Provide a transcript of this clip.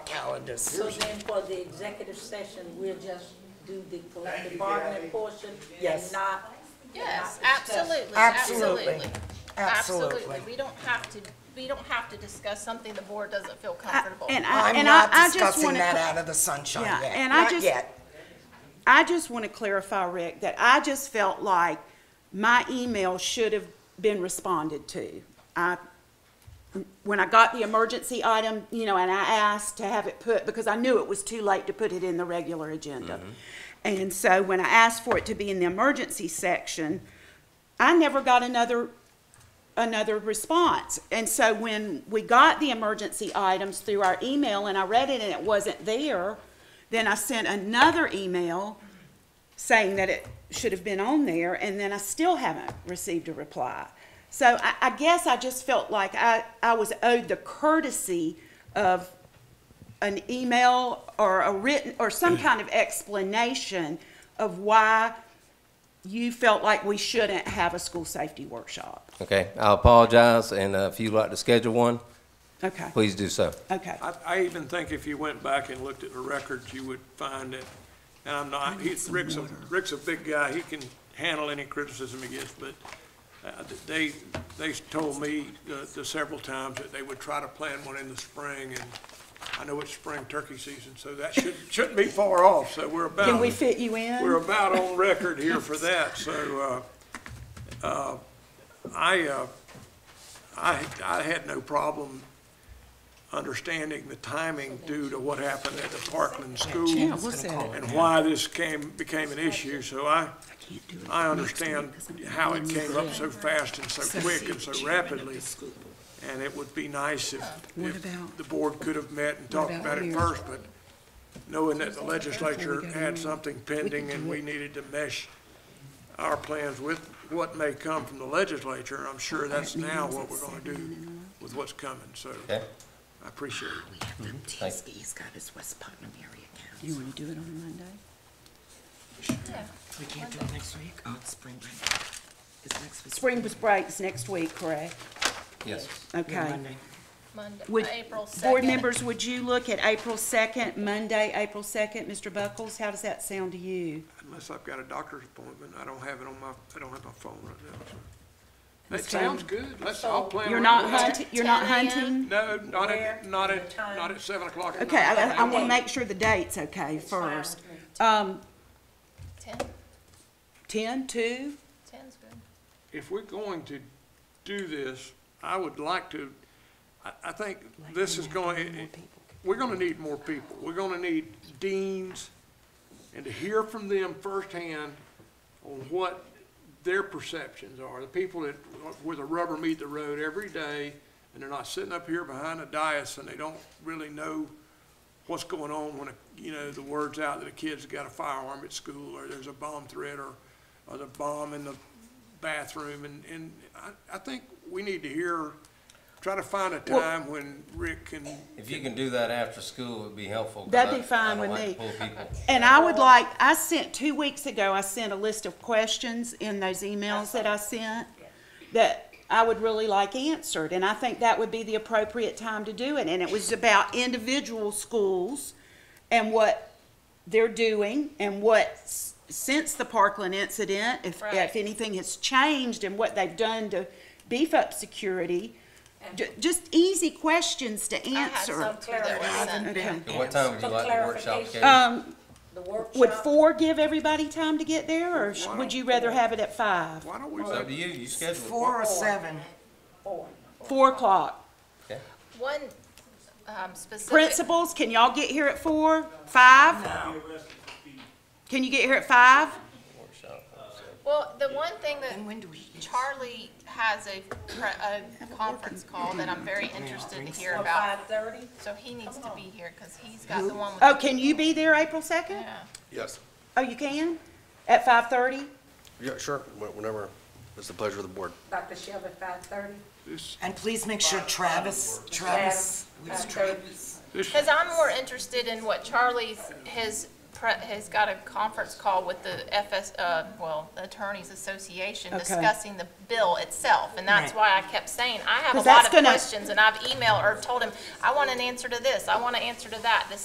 calendars. So then for the executive session, we'll just do the Thank collective you, bargaining Kathy. portion? Yes. And not, Yes, Not discuss. absolutely, Absolutely. absolutely. Absolutely. We don't have to, we don't have to discuss something the board doesn't feel comfortable. Uh, And I, I'm and I, not I just discussing want that to, out of the sunshine Yeah, yet, and I not just- yet. I just want to clarify, Rick, that I just felt like my email should have been responded to. I, when I got the emergency item, you know, and I asked to have it put, because I knew it was too late to put it in the regular agenda. Mm-hmm. And so when I asked for it to be in the emergency section, I never got another another response. And so when we got the emergency items through our email and I read it and it wasn't there, then I sent another email saying that it should have been on there and then I still haven't received a reply. So I, I guess I just felt like I, I was owed the courtesy of an email or a written, or some kind of explanation of why you felt like we shouldn't have a school safety workshop. Okay, I apologize, and uh, if you'd like to schedule one, Okay, please do so. okay. I, I even think if you went back and looked at the records, you would find that, and I'm not, he, Rick's a, Rick's a big guy, he can handle any criticism he gets, but, uh, they, they told me, uh, the several times that they would try to plan one in the spring, and I know it's spring turkey season, so that should, shouldn't be far off, so we're about. Can we fit you in? We're about on record here for that, so, uh, uh, I, uh, I, I had no problem understanding the timing due to what happened at the Parkland School Yeah, what's that? and why this came, became an issue, so I, I understand how it came up so fast and so quick and so rapidly. And it would be nice if, What if about- the board could have met and talked about about it here? first, but knowing that the legislature We got had another- something pending and we needed to mesh our plans with what may come from the legislature, I'm sure that's now what we're gonna do with what's coming, so Okay. I appreciate it. Thank- He's got his West Putnam area You want to do it on Monday? We can't do it next week? Oh, it's spring break. It's next week. Spring break's next week, correct? Yes. Okay. Monday, Would, April second. board members, would you look at April 2nd, Monday, April 2nd? Mr. Buckles, how does that sound to you? Unless I've got a doctor's appointment, I don't have it on my, I don't have my phone right now, so. That That's fine. sounds good, let's, I'll plan. You're around not that. hunting, you're not 10 a.m. hunting? No, not at, Where? not at, The time? not at seven o'clock at night. Okay, I, I want Okay. to make sure the date's okay fine first. with me. Um, Ten, 10, 2? ten's good. if we're going to do this, I would like to, I, I think this is going, we're gonna need more people. We're gonna need deans, and to hear from them firsthand on what their perceptions are, the people that, where the rubber meet the road every day, and they're not sitting up here behind a dais, and they don't really know what's going on when, a- you know, the word's out that a kid's got a firearm at school, or there's a bomb threat, or, or the bomb in the bathroom, and, and I, I think we need to hear, try to find a time when Rick can, If you can do that after school, it'd be helpful. 'cause That'd I- be fine I don't with like me. to pull people. And I Oh. would like, I sent, two weeks ago, I sent a list of questions in those emails that I sent that I would really like answered, and I think that would be the appropriate time to do it. And it was about individual schools and what they're doing and what, s- since the Parkland incident, if, if Right. anything has changed and what they've done to beef up security. Ju- Just easy questions to I had answer. some too that were Answer. sent. Okay. And What time would you For like the workshop clarification. scheduled? Um, the workshop. would four give everybody time to get there, or sh- Why would don't you rather have it at five? why don't we It's up let to you, you schedule it. Four or seven. Four. Four o'clock. One, um, specific. Principals, can y'all get here at four? Five? Can you get here at five? Well, the one thing that Charlie has a, pre- a conference call that I'm very interested to hear Or about. five thirty? So he needs to be here, cause he's got the one with. Oh, can you be there April second? Yeah. Yes, Oh, you can? At five thirty? yeah, sure, Wh- whenever, it's the pleasure of the board. Dr. Shelby, five thirty? this, And please make sure Travis, Travis, Travis, five thirty. this, Because I'm more interested in what Charlie's, his pre, has got a conference call with the FS, uh, well, the Attorneys Association Okay. discussing the bill itself. And that's why I kept saying, I have a lot 'Cause that's of gonna- questions, and I've emailed or told him, I want an answer to this, I want an answer to that. This